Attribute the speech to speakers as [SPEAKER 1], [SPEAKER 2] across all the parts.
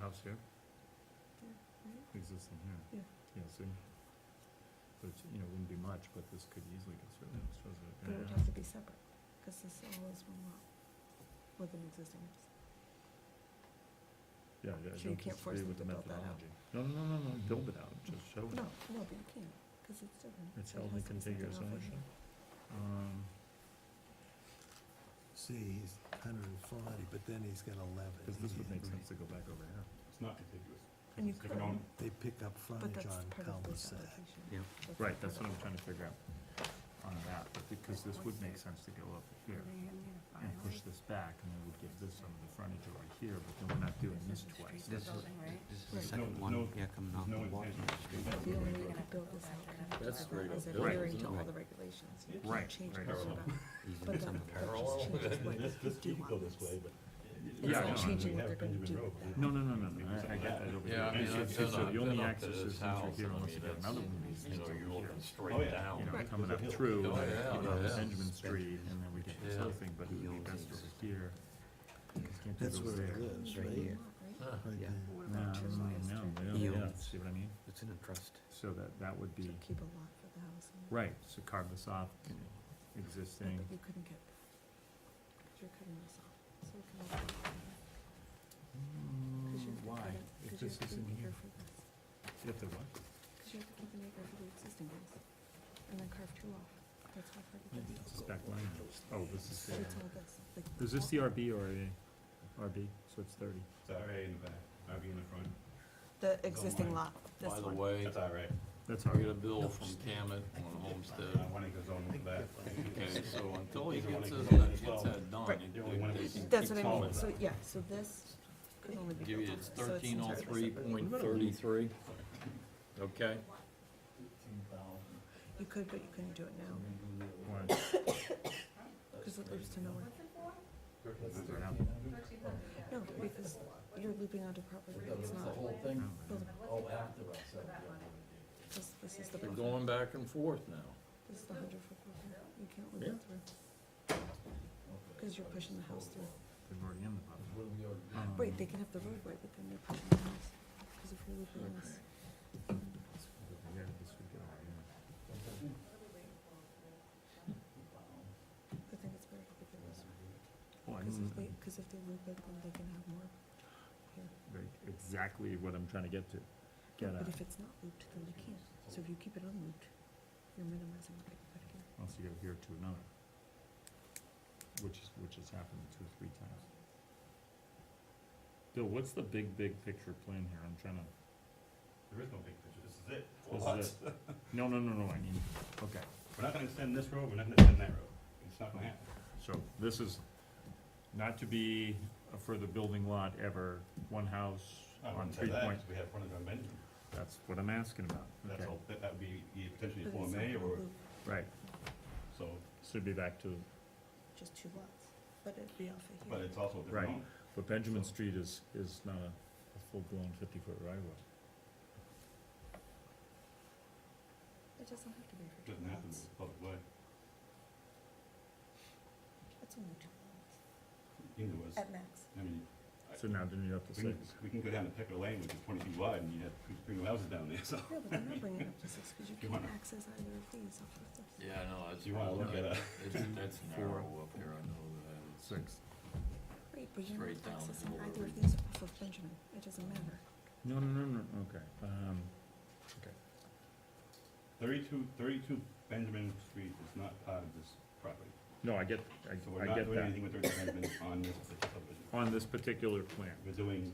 [SPEAKER 1] house here?
[SPEAKER 2] Yeah, right.
[SPEAKER 1] Existing here?
[SPEAKER 2] Yeah.
[SPEAKER 1] Yeah, see? So it's, you know, wouldn't be much, but this could easily get through, it's
[SPEAKER 2] But it would
[SPEAKER 1] residential.
[SPEAKER 2] have to be separate, because this all is one lot with an existing house.
[SPEAKER 1] Yeah, yeah, I
[SPEAKER 2] So you
[SPEAKER 1] don't
[SPEAKER 2] can't force
[SPEAKER 1] disagree with the
[SPEAKER 2] them to build that out.
[SPEAKER 1] methodology. No, no, no, no, no, build it out, just show it.
[SPEAKER 2] No, no, but you can't, because it's different.
[SPEAKER 1] It's
[SPEAKER 2] So it
[SPEAKER 1] held in
[SPEAKER 2] has to be something
[SPEAKER 1] contiguous
[SPEAKER 2] off of
[SPEAKER 1] ownership.
[SPEAKER 2] here.
[SPEAKER 1] Um,
[SPEAKER 3] See, he's hundred and forty, but then he's got eleven.
[SPEAKER 1] cause this would make sense to go back over here.
[SPEAKER 4] It's not contiguous.
[SPEAKER 2] And you
[SPEAKER 4] They
[SPEAKER 2] could,
[SPEAKER 4] can own-
[SPEAKER 3] They pick up
[SPEAKER 2] but
[SPEAKER 3] frontage
[SPEAKER 2] that's
[SPEAKER 3] on
[SPEAKER 2] part of this
[SPEAKER 3] cul-de-sac.
[SPEAKER 2] application.
[SPEAKER 4] Yeah.
[SPEAKER 2] That's
[SPEAKER 1] Right,
[SPEAKER 2] not
[SPEAKER 1] that's what
[SPEAKER 2] part
[SPEAKER 1] I'm
[SPEAKER 2] of-
[SPEAKER 1] trying to figure out on that, but because this would make sense to go up here and push this back, and then we'd give this some of the frontage over here, but then we're not doing this twice.
[SPEAKER 5] This is, this is the
[SPEAKER 2] Right.
[SPEAKER 5] second
[SPEAKER 4] No,
[SPEAKER 5] one,
[SPEAKER 4] no,
[SPEAKER 5] yeah, coming off
[SPEAKER 4] no
[SPEAKER 5] the water.
[SPEAKER 4] intention to do that.
[SPEAKER 2] The only way you're gonna build this out kind of
[SPEAKER 6] That's right up
[SPEAKER 2] is
[SPEAKER 6] there,
[SPEAKER 2] adhering
[SPEAKER 5] isn't
[SPEAKER 2] to all
[SPEAKER 5] it?
[SPEAKER 2] the regulations. You
[SPEAKER 4] It's
[SPEAKER 2] can't
[SPEAKER 1] right,
[SPEAKER 2] change
[SPEAKER 1] right.
[SPEAKER 2] much
[SPEAKER 4] Parallel.
[SPEAKER 2] about it. But
[SPEAKER 5] Even
[SPEAKER 2] that-
[SPEAKER 5] some of
[SPEAKER 2] that
[SPEAKER 5] the.
[SPEAKER 2] just changes what
[SPEAKER 4] This, this
[SPEAKER 2] you
[SPEAKER 4] you could go
[SPEAKER 2] want.
[SPEAKER 4] this way, but.
[SPEAKER 1] Yeah, no, I
[SPEAKER 2] It's not changing
[SPEAKER 4] We
[SPEAKER 2] what
[SPEAKER 4] have
[SPEAKER 2] they're gonna do
[SPEAKER 4] Benjamin Road,
[SPEAKER 2] with that.
[SPEAKER 1] No, no, no, no, no, I, I got that over here.
[SPEAKER 6] Yeah, I mean,
[SPEAKER 1] So-
[SPEAKER 6] I've
[SPEAKER 1] so
[SPEAKER 6] been up-
[SPEAKER 1] the only
[SPEAKER 6] been up to
[SPEAKER 1] access
[SPEAKER 6] this
[SPEAKER 1] is in through
[SPEAKER 6] house,
[SPEAKER 1] here
[SPEAKER 6] and I
[SPEAKER 1] unless you
[SPEAKER 6] mean,
[SPEAKER 1] get
[SPEAKER 6] it's-
[SPEAKER 1] another one of these
[SPEAKER 6] You
[SPEAKER 1] things
[SPEAKER 6] know,
[SPEAKER 1] over
[SPEAKER 6] you're
[SPEAKER 1] here.
[SPEAKER 6] looking
[SPEAKER 4] Oh,
[SPEAKER 6] straight
[SPEAKER 4] yeah.
[SPEAKER 1] You
[SPEAKER 6] down.
[SPEAKER 1] know,
[SPEAKER 2] Right.
[SPEAKER 1] coming up
[SPEAKER 4] There's a
[SPEAKER 1] through,
[SPEAKER 6] hill.
[SPEAKER 1] like,
[SPEAKER 6] Yeah,
[SPEAKER 1] you know,
[SPEAKER 6] yeah.
[SPEAKER 1] Benjamin Street, and then we get this
[SPEAKER 6] Yeah.
[SPEAKER 1] other thing, but it would be best over here. You can't do
[SPEAKER 3] That's where
[SPEAKER 1] those
[SPEAKER 3] it
[SPEAKER 1] there.
[SPEAKER 3] lives,
[SPEAKER 5] Right
[SPEAKER 3] right?
[SPEAKER 5] here.
[SPEAKER 2] Right?
[SPEAKER 3] Right
[SPEAKER 5] Yeah.
[SPEAKER 3] there.
[SPEAKER 2] What
[SPEAKER 1] No,
[SPEAKER 2] about two lots?
[SPEAKER 1] no, no,
[SPEAKER 5] You-
[SPEAKER 1] yeah, see what I mean?
[SPEAKER 5] It's in a trust.
[SPEAKER 1] So that, that would be,
[SPEAKER 2] So Keep a lot for the house. and-
[SPEAKER 1] right, so carve this off,
[SPEAKER 2] Yeah,
[SPEAKER 1] existing.
[SPEAKER 2] But you couldn't get, because you're cutting this off, so it can all be on here. 'Cause you have to
[SPEAKER 1] Mm, Why?
[SPEAKER 2] cut it-
[SPEAKER 1] If
[SPEAKER 2] 'cause you
[SPEAKER 1] this
[SPEAKER 2] have to
[SPEAKER 1] isn't
[SPEAKER 2] keep an
[SPEAKER 1] here,
[SPEAKER 2] acre for this,
[SPEAKER 1] if there was,
[SPEAKER 2] 'cause you have to keep an acre for the existing house, and then carve two off, that's how far you
[SPEAKER 1] maybe
[SPEAKER 2] get.
[SPEAKER 1] it's this back line. Oh, this is
[SPEAKER 2] But it's all
[SPEAKER 1] there.
[SPEAKER 2] this, like.
[SPEAKER 1] Is this
[SPEAKER 2] all-
[SPEAKER 1] the RB or a RB? So it's thirty.
[SPEAKER 4] It's RA in the back, RB in the front.
[SPEAKER 2] The existing
[SPEAKER 4] line.
[SPEAKER 2] lot, this
[SPEAKER 6] By the
[SPEAKER 2] one.
[SPEAKER 6] way,
[SPEAKER 4] That's RA.
[SPEAKER 1] That's
[SPEAKER 6] I
[SPEAKER 1] RB.
[SPEAKER 6] get a bill from Camet on Homestead,
[SPEAKER 4] One acre zone in the back.
[SPEAKER 6] okay, so until he gets
[SPEAKER 4] There's
[SPEAKER 6] this,
[SPEAKER 4] only one acre
[SPEAKER 6] gets
[SPEAKER 4] zone.
[SPEAKER 6] that done,
[SPEAKER 2] Right.
[SPEAKER 6] it-
[SPEAKER 4] The only one
[SPEAKER 6] they
[SPEAKER 4] acre
[SPEAKER 6] can
[SPEAKER 2] That's
[SPEAKER 6] keep
[SPEAKER 2] what I mean,
[SPEAKER 6] going.
[SPEAKER 2] so, yeah, so this could only be
[SPEAKER 6] Give
[SPEAKER 2] built
[SPEAKER 6] you
[SPEAKER 2] on
[SPEAKER 6] it's
[SPEAKER 2] this, so it's
[SPEAKER 6] thirteen oh
[SPEAKER 2] entirely
[SPEAKER 6] three
[SPEAKER 2] separate.
[SPEAKER 6] point thirty-three, okay?
[SPEAKER 2] You could, but you couldn't do it now,
[SPEAKER 1] Why?
[SPEAKER 2] because it leads to nowhere. No, because you're looping onto property that's not
[SPEAKER 1] No,
[SPEAKER 2] buildable,
[SPEAKER 7] Oh, after us, so,
[SPEAKER 2] this, this is the
[SPEAKER 6] They're
[SPEAKER 2] buffer,
[SPEAKER 6] going back and forth now.
[SPEAKER 2] this is the hundred foot buffer, you can't loop it through. Because you're pushing the house through.
[SPEAKER 1] They're already in the buffer. Um,
[SPEAKER 2] Right, they can have the roadway, but then they're pushing the house, because if you're looping this,
[SPEAKER 1] yeah, this would get all in.
[SPEAKER 2] I think it's better to loop it this way.
[SPEAKER 1] Well, I
[SPEAKER 2] Because if they,
[SPEAKER 1] mean,
[SPEAKER 2] because if they loop it, then they can have more here.
[SPEAKER 1] right, exactly what I'm trying to get to. Get
[SPEAKER 2] But
[SPEAKER 1] at,
[SPEAKER 2] if it's not looped, then they can't. So if you keep it unlooped, you're minimizing what they can put here.
[SPEAKER 1] once you go here to another. Which is, which has happened two or three times. Bill, what's the big, big picture plan here? I'm trying to,
[SPEAKER 4] There is no big picture, this is it. Four
[SPEAKER 1] this
[SPEAKER 4] lots.
[SPEAKER 1] is it. No, no, no, no, I mean, okay,
[SPEAKER 4] We're not gonna extend this road, we're not gonna extend that road. It's not gonna happen.
[SPEAKER 1] so this is not to be a further building lot ever, one house
[SPEAKER 4] I
[SPEAKER 1] on
[SPEAKER 4] wouldn't say
[SPEAKER 1] three
[SPEAKER 4] that,
[SPEAKER 1] point,
[SPEAKER 4] 'cause We have frontage on Benjamin.
[SPEAKER 1] that's what I'm asking about,
[SPEAKER 4] That's
[SPEAKER 1] okay,
[SPEAKER 4] all, that that would be either potentially a
[SPEAKER 2] But
[SPEAKER 4] Form
[SPEAKER 2] it's not
[SPEAKER 4] A or,
[SPEAKER 2] looped,
[SPEAKER 1] right,
[SPEAKER 4] so,
[SPEAKER 1] so it'd be back to,
[SPEAKER 2] Just two lots, but it'd be off of
[SPEAKER 4] but
[SPEAKER 2] here.
[SPEAKER 4] it's also a
[SPEAKER 1] Right.
[SPEAKER 4] different owner.
[SPEAKER 1] but Benjamin Street is, is not a, a full-blown fifty-foot right of way.
[SPEAKER 2] It doesn't have to be for two
[SPEAKER 4] Doesn't have to be
[SPEAKER 2] lots.
[SPEAKER 4] a public way.
[SPEAKER 2] It's only two lots,
[SPEAKER 4] Either was,
[SPEAKER 2] at max.
[SPEAKER 4] I mean, I-
[SPEAKER 1] So now then you have to
[SPEAKER 4] we
[SPEAKER 1] say,
[SPEAKER 4] can, we can go down to Pecker Lane, which is twenty feet wide, and you have three- three new houses down there, so.
[SPEAKER 2] Yeah, but they're not bringing it up to six, because you
[SPEAKER 4] You
[SPEAKER 2] can't
[SPEAKER 4] wanna-
[SPEAKER 2] access either of these off of this.
[SPEAKER 6] Yeah, I know, that's.
[SPEAKER 4] You wanna look at a,
[SPEAKER 6] That's, that's narrow up here, I know that.
[SPEAKER 1] six.
[SPEAKER 2] Right, but you're
[SPEAKER 6] Straight
[SPEAKER 2] not
[SPEAKER 6] down is
[SPEAKER 2] accessing
[SPEAKER 6] what
[SPEAKER 2] either
[SPEAKER 6] we're
[SPEAKER 2] of
[SPEAKER 6] reading.
[SPEAKER 2] these off of Benjamin. It doesn't matter.
[SPEAKER 1] No, no, no, no, okay, um, okay,
[SPEAKER 4] thirty-two, thirty-two Benjamin Street is not part of this property.
[SPEAKER 1] no, I get, I,
[SPEAKER 4] So we're
[SPEAKER 1] I
[SPEAKER 4] not
[SPEAKER 1] get
[SPEAKER 4] doing
[SPEAKER 1] that,
[SPEAKER 4] anything with thirty-two Benjamin on this particular subdivision.
[SPEAKER 1] on this particular plan,
[SPEAKER 4] We're doing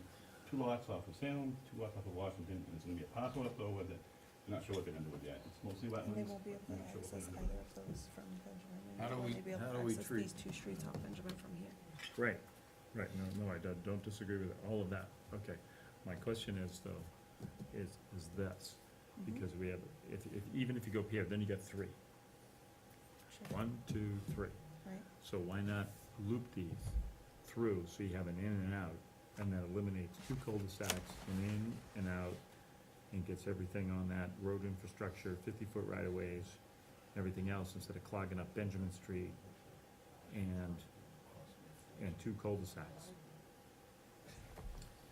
[SPEAKER 4] two lots off of Salem, two lots off of Washington, and it's gonna be a parcel left over that, we're not sure what they're gonna do with yet. It's mostly
[SPEAKER 2] And they
[SPEAKER 4] wetlands.
[SPEAKER 2] won't be able
[SPEAKER 4] I'm
[SPEAKER 2] to
[SPEAKER 4] not sure what
[SPEAKER 2] access
[SPEAKER 4] they're gonna do.
[SPEAKER 2] either of those from Benjamin. and
[SPEAKER 6] How do
[SPEAKER 2] they'll
[SPEAKER 6] we-
[SPEAKER 2] only be able
[SPEAKER 6] how
[SPEAKER 2] to
[SPEAKER 6] do we
[SPEAKER 2] access
[SPEAKER 6] treat-
[SPEAKER 2] These two streets off Benjamin from here.
[SPEAKER 1] right, right, no, no, I don't, don't disagree with all of that, okay. My question is though, is, is this,
[SPEAKER 2] Mhm.
[SPEAKER 1] because we have, if, if, even if you go up here, then you get three.
[SPEAKER 2] Sure.
[SPEAKER 1] One, two, three,
[SPEAKER 2] Right,
[SPEAKER 1] so why not loop these through, so you have an in and out, and that eliminates two cul-de-sacs, an in and out, and gets everything on that road infrastructure, fifty-foot right-of-ways, everything else, instead of clogging up Benjamin Street and, and two cul-de-sacs.